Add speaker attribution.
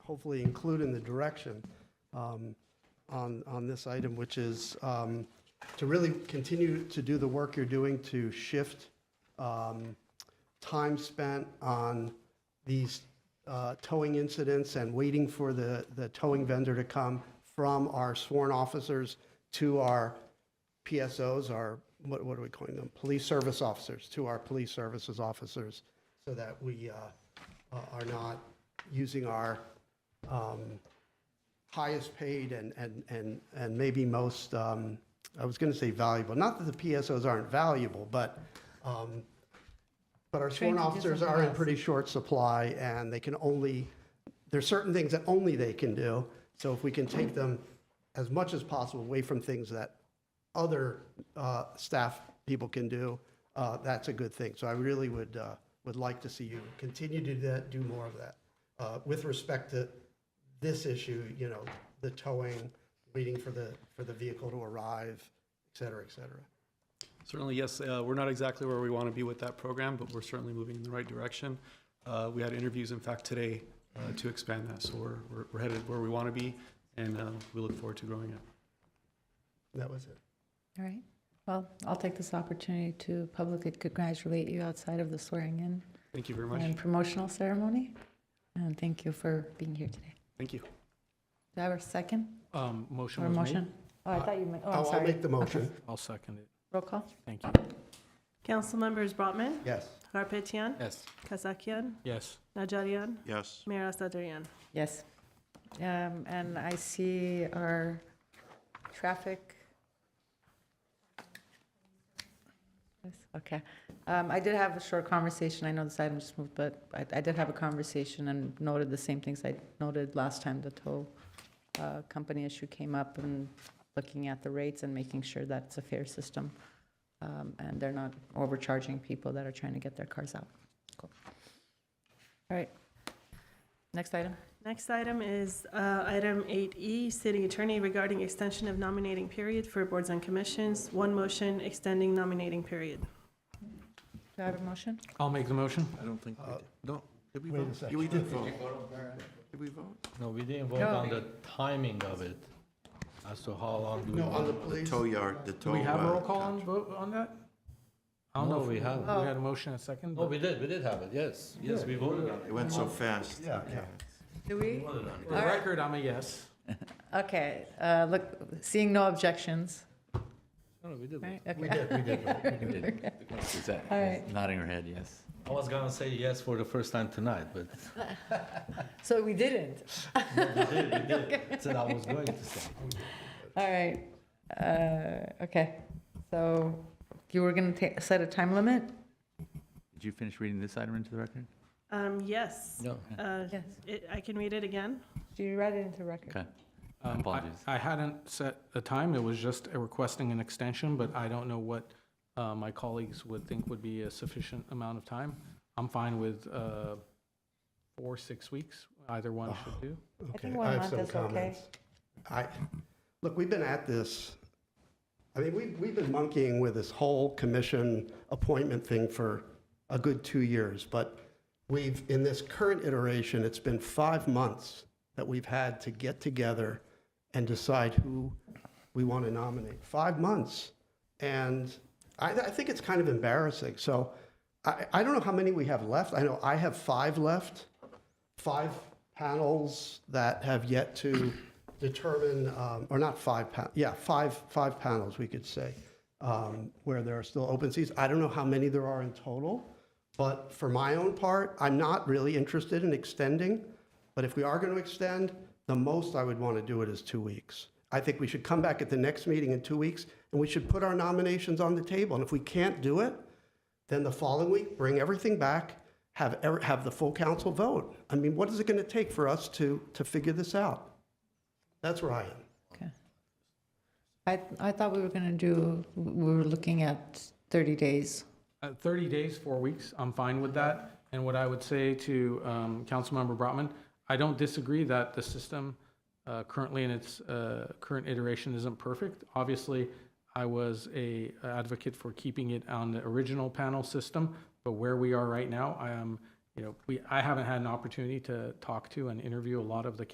Speaker 1: hopefully include in the direction um, on, on this item, which is um, to really continue to do the work you're doing to shift um, time spent on these uh, towing incidents and waiting for the, the towing vendor to come from our sworn officers to our PSOs, our, what, what are we calling them? Police service officers, to our police services officers, so that we uh, uh, are not using our um, highest paid and, and, and, and maybe most, um, I was going to say valuable, not that the PSOs aren't valuable, but, um, but our sworn
Speaker 2: Trained to do
Speaker 1: officers
Speaker 2: something
Speaker 1: are in
Speaker 2: else.
Speaker 1: pretty short supply and they can only, there's certain things that only they can do. So if we can take them as much as possible away from things that other uh, staff people can do, uh, that's a good thing. So I really would, uh, would like to see you continue to do that, do more of that. Uh, With respect to this issue, you know, the towing, waiting for the, for the vehicle to arrive, et cetera, et cetera.
Speaker 3: Certainly, yes. Uh, We're not exactly where we want to be with that program, but we're certainly moving in the right direction. Uh, We had interviews, in fact, today uh, to expand that, so we're- we're we're headed where we want to be, and uh, we look forward to growing it.
Speaker 1: That was it.
Speaker 2: All right. Well, I'll take this opportunity to publicly congratulate you outside of the swearing-in
Speaker 3: Thank you very much.
Speaker 2: and promotional ceremony. And thank you for being here today.
Speaker 3: Thank you.
Speaker 2: Do I have a second
Speaker 4: Um,
Speaker 2: or a
Speaker 4: motion was made.
Speaker 2: motion? Oh, I thought you meant, oh, I'm
Speaker 1: I'll- I'll
Speaker 2: sorry.
Speaker 1: make the motion.
Speaker 4: I'll second it.
Speaker 2: Roll call?
Speaker 4: Thank you.
Speaker 5: Council members Brotman,
Speaker 1: Yes.
Speaker 5: Garpetian,
Speaker 4: Yes.
Speaker 5: Kasakian,
Speaker 4: Yes.
Speaker 5: Najarian,
Speaker 6: Yes.
Speaker 5: Mayor Asadarian.
Speaker 2: Yes. Um, And I see our traffic. Yes, Okay. Um, I did have a short conversation. I know this item just moved, but I- I did have a conversation and noted the same things I noted last time the tow uh, company issue came up and looking at the rates and making sure that it's a fair system um, and they're not overcharging people that are trying to get their cars out. Cool. All right. Next item.
Speaker 5: Next item is uh, item 8E, City Attorney regarding extension of nominating period for boards and commissions. One motion extending nominating period.
Speaker 2: Do I have a motion?
Speaker 4: I'll make the motion.
Speaker 6: I don't think we
Speaker 1: Uh,
Speaker 6: did. No, did we
Speaker 1: wait a
Speaker 6: vote?
Speaker 1: second.
Speaker 6: Yeah, we did vote. Did we vote?
Speaker 7: No, we didn't vote
Speaker 2: No.
Speaker 7: on the timing of it, as to how long do we
Speaker 1: No, on the
Speaker 7: want.
Speaker 1: police.
Speaker 6: Tow yard, the
Speaker 4: Do
Speaker 6: tow.
Speaker 4: we have a
Speaker 6: uh,
Speaker 4: roll call on vote on that? I don't
Speaker 7: No, Oh.
Speaker 4: know if
Speaker 7: we haven't.
Speaker 4: We had a motion and a second.
Speaker 7: No,
Speaker 4: but-
Speaker 7: we did, we did have it, yes, yes, we voted on
Speaker 6: It went so fast.
Speaker 1: Yeah, yeah.
Speaker 2: Do we?
Speaker 4: For the record, I'm a yes.
Speaker 2: Okay, uh, look, seeing no objections.
Speaker 7: it. No, we did.
Speaker 2: right?
Speaker 7: vote.
Speaker 2: Okay.
Speaker 7: We did, we did. vote, we did.
Speaker 8: She's at-
Speaker 2: All right.
Speaker 8: she's nodding her head, yes.
Speaker 7: I was gonna say yes for the first time tonight, but
Speaker 2: So we didn't.
Speaker 7: we did, we did. That's what I was going to say.
Speaker 2: All right. Uh, okay, so you were gonna ta- set a time limit?
Speaker 8: Did you finish reading this item into the record?
Speaker 5: Um, Yes.
Speaker 7: No.
Speaker 5: Uh,
Speaker 2: Yes.
Speaker 5: it- I can read it again.
Speaker 2: Do you write it into record?
Speaker 8: Okay.
Speaker 4: Um, I-
Speaker 8: Apologies.
Speaker 4: I hadn't set a time. It was just a requesting an extension, but I don't know what uh, my colleagues would think would be a sufficient amount of time. I'm fine with uh, four, six weeks, either one should do.
Speaker 2: I
Speaker 1: Okay,
Speaker 2: think one
Speaker 1: have
Speaker 2: month
Speaker 1: some
Speaker 2: is okay.
Speaker 1: comments. I, look, we've been at this, I mean, we've, we've been monkeying with this whole commission appointment thing for a good two years, but we've, in this current iteration, it's been five months that we've had to get together and decide who we want to nominate. Five months. And I, I think it's kind of embarrassing. So I, I don't know how many we have left. I know I have five left five panels that have yet to determine, um, or not five, pa- yeah, five, five panels, we could say, um, where there are still open seats. I don't know how many there are in total, but for my own part, I'm not really interested in extending. But if we are going to extend, the most I would want to do it is two weeks. I think we should come back at the next meeting in two weeks, and we should put our nominations on the table. And if we can't do it, then the following week, bring everything back, have, ever- have the full council vote. I mean, what is it going to take for us to, to figure this out? That's where I am.
Speaker 2: Okay. I, I thought we were gonna do, we were looking at 30 days.
Speaker 4: Uh, 30 days, four weeks, I'm fine with that. And what I would say to um, Councilmember Brotman, I don't disagree that the system uh, currently in its uh, current iteration isn't perfect. Obviously, I was a advocate for keeping it on the original panel system, but where we are right now, I am you know, we, I haven't had an opportunity to talk to and interview a lot of the